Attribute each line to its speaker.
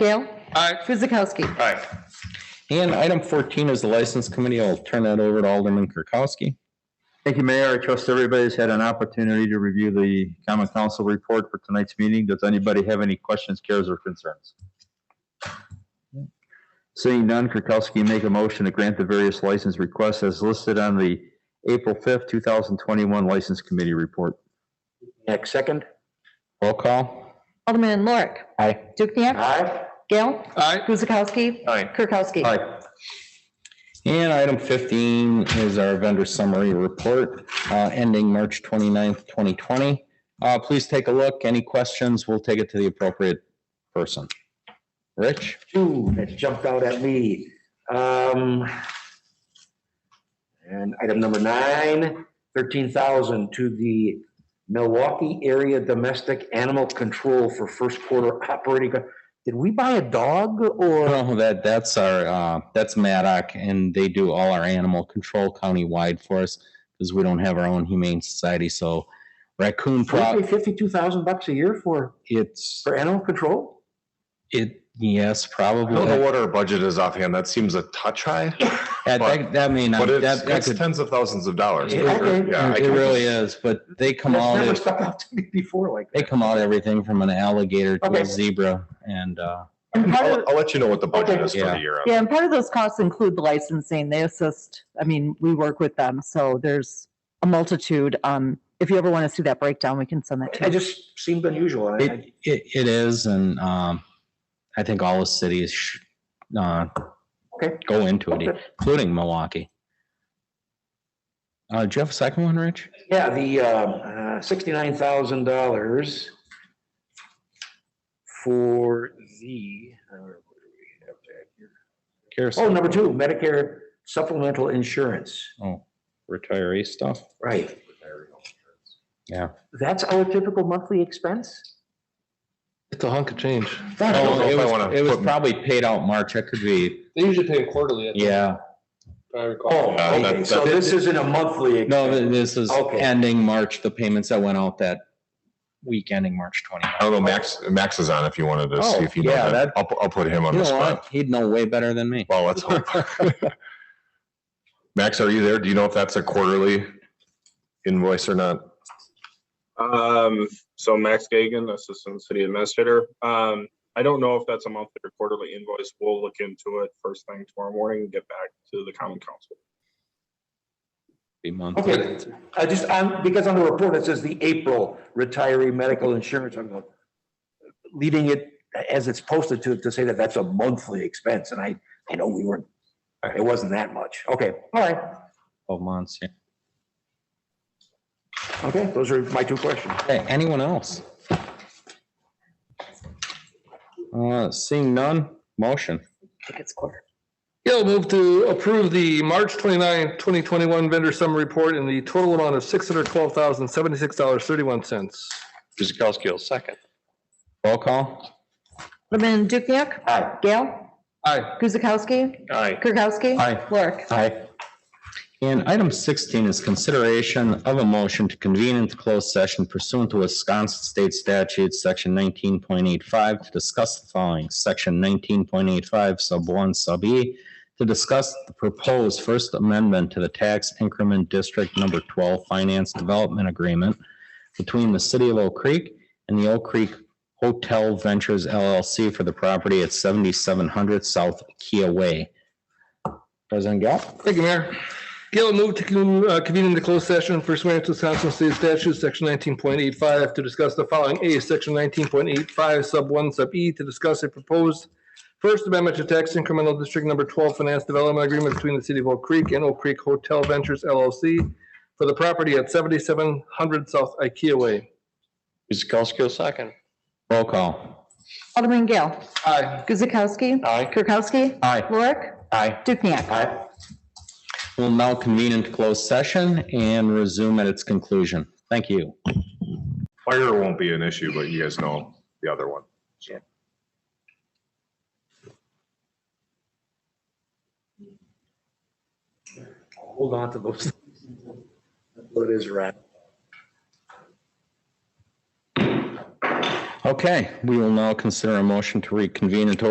Speaker 1: Gail.
Speaker 2: Aye.
Speaker 1: Guzekowski.
Speaker 2: Aye.
Speaker 3: And item fourteen is the license committee. I'll turn that over to Alderman Kirkowski.
Speaker 4: Thank you, Mayor. I trust everybody's had an opportunity to review the common council report for tonight's meeting. Does anybody have any questions, cares, or concerns? Seeing none, Kirkowski make a motion to grant the various license requests as listed on the April fifth, two thousand twenty-one License Committee Report.
Speaker 5: Next second.
Speaker 3: Roll call.
Speaker 1: Alderman Lorik.
Speaker 3: Aye.
Speaker 1: Dukenyak.
Speaker 5: Aye.
Speaker 1: Gail.
Speaker 2: Aye.
Speaker 1: Guzekowski.
Speaker 2: Aye.
Speaker 1: Kirkowski.
Speaker 4: Aye.
Speaker 3: And item fifteen is our vendor summary report, uh, ending March 29th, twenty. Uh, please take a look. Any questions? We'll take it to the appropriate person. Rich?
Speaker 5: Two that jumped out at me. Um, and item number nine, thirteen thousand to the Milwaukee Area Domestic Animal Control for first quarter operating. Did we buy a dog or?
Speaker 3: Well, that, that's our, uh, that's Maddock and they do all our animal control countywide for us because we don't have our own humane society. So raccoon
Speaker 5: We pay
Speaker 3: prop,
Speaker 5: fifty-two thousand bucks a year for,
Speaker 3: it's,
Speaker 5: for animal control?
Speaker 3: it, yes,
Speaker 2: I don't know
Speaker 3: probably.
Speaker 2: what our budget is offhand. That seems a touch high,
Speaker 3: That, that- that may not,
Speaker 2: but it's,
Speaker 3: that, that
Speaker 2: it's
Speaker 3: could,
Speaker 2: tens of thousands of dollars.
Speaker 5: Yeah, okay.
Speaker 2: Yeah, I
Speaker 3: it
Speaker 2: can-
Speaker 3: really is, but they come
Speaker 5: That's
Speaker 3: out,
Speaker 5: never
Speaker 3: at-
Speaker 5: stuck out to me before like
Speaker 3: they
Speaker 5: that.
Speaker 3: come out everything from an alligator to
Speaker 5: Okay.
Speaker 3: a zebra and, uh,
Speaker 1: And part of,
Speaker 2: I'll, I'll let you know what the budget
Speaker 5: Okay.
Speaker 2: is for
Speaker 3: Yeah.
Speaker 2: the year.
Speaker 1: yeah, and part of those costs include the licensing. They assist, I mean, we work with them, so there's a multitude. Um, if you ever want to see that breakdown, we can send that to
Speaker 5: It
Speaker 1: you.
Speaker 5: just seemed unusual. and I-
Speaker 3: it, it, it is. And, um, I think all the cities, should, uh,
Speaker 5: Okay.
Speaker 3: go into it,
Speaker 5: Okay.
Speaker 3: including Milwaukee. Uh, do you have a second one, Rich?
Speaker 5: Yeah, the um, uh, sixty-nine thousand dollars for the, uh, what do we have back here? oh, number two, Medicare supplemental insurance,
Speaker 3: Oh, retiree stuff.
Speaker 5: right.
Speaker 3: Yeah.
Speaker 5: That's our typical monthly expense?
Speaker 6: It's a hunk of change.
Speaker 2: I don't know
Speaker 3: Oh,
Speaker 2: if
Speaker 3: it
Speaker 2: I
Speaker 3: was-
Speaker 2: wanna
Speaker 3: It was
Speaker 2: put-
Speaker 3: probably paid out March. It could be,
Speaker 6: They usually pay them quarterly, if
Speaker 3: yeah.
Speaker 6: I recall.
Speaker 5: Oh,
Speaker 2: that-
Speaker 5: okay, so
Speaker 3: that-
Speaker 5: this isn't a monthly.
Speaker 3: No,
Speaker 5: expense.
Speaker 3: th- this is
Speaker 5: Okay.
Speaker 3: ending March, the payments that went out that week ending March twenty.
Speaker 2: I don't know, Max, Max is on if you wanted to
Speaker 3: Oh,
Speaker 2: see if you know
Speaker 3: yeah,
Speaker 2: that.
Speaker 3: that-
Speaker 2: I'll, I'll put him on
Speaker 3: You
Speaker 2: the
Speaker 3: know
Speaker 2: spot.
Speaker 3: what? He'd know way better than me.
Speaker 2: Well, let's hope. Max, are you there? Do you know if that's a quarterly invoice or not?
Speaker 7: Um, so Max Gagan, Assistant City Administrator. Um, I don't know if that's a monthly or quarterly invoice. We'll look into it first thing tomorrow morning and get back to the common council.
Speaker 3: Be monthly.
Speaker 5: Okay, I just, I'm, because on the report, it says the April retiree medical insurance, I'm going, leaving it as it's posted to, to say that that's a monthly expense, and I, I know we weren't, it wasn't that much. Okay, all right,
Speaker 3: Twelve months. yeah.
Speaker 5: okay, those are my two questions.
Speaker 3: Hey, anyone else? Uh, seeing none, motion.
Speaker 1: I think it's quarter.
Speaker 6: Yeah, I'll move to approve the March 29, 2021 vendor summary report in the total amount of $612,076.31.
Speaker 2: Guzekowski, second.
Speaker 3: Roll call.
Speaker 1: Alderman Dukenyak.
Speaker 5: Aye.
Speaker 1: Gail.
Speaker 6: Aye.
Speaker 1: Guzekowski.
Speaker 2: Aye.
Speaker 1: Kirkowski.
Speaker 3: Aye.
Speaker 1: Lorik.
Speaker 3: Aye. And item sixteen is consideration of a motion to convene into closed session pursuant to Wisconsin State Statute, section nineteen point eight five, to discuss the following, section nineteen point eight five, sub one, sub E, to discuss the proposed First Amendment to the Tax Increment District Number Twelve Finance Development Agreement between the City of Oak Creek and the Oak Creek Hotel Ventures LLC for the property at seventy-seven hundred South Kia Way. President Gale?
Speaker 6: Thank you, Mayor. Gail, move to con- uh, convene into closed session pursuant to Wisconsin State Statute, Section 19.85, to discuss the following. A, Section 19.85, Sub 1, Sub E, to discuss a proposed First Amendment to Tax Incremental District Number 12 Finance Development Agreement between the City of Oak Creek and Oak Creek Hotel Ventures LLC for the property at 7700 South IKEA Way.
Speaker 2: Guzekowski, second.
Speaker 3: Roll call.
Speaker 1: Alderman Gail.
Speaker 6: Aye.
Speaker 1: Guzekowski.
Speaker 2: Aye.
Speaker 1: Kirkowski.
Speaker 3: Aye.
Speaker 1: Lorik.
Speaker 3: Aye.
Speaker 1: Dukenyak.
Speaker 3: We'll now convene into closed session and resume at its conclusion. Thank you.
Speaker 2: Fire won't be an issue, but you guys know the other one.
Speaker 5: Hold on to those. What is right.
Speaker 3: Okay, we will now consider a motion to reconvene into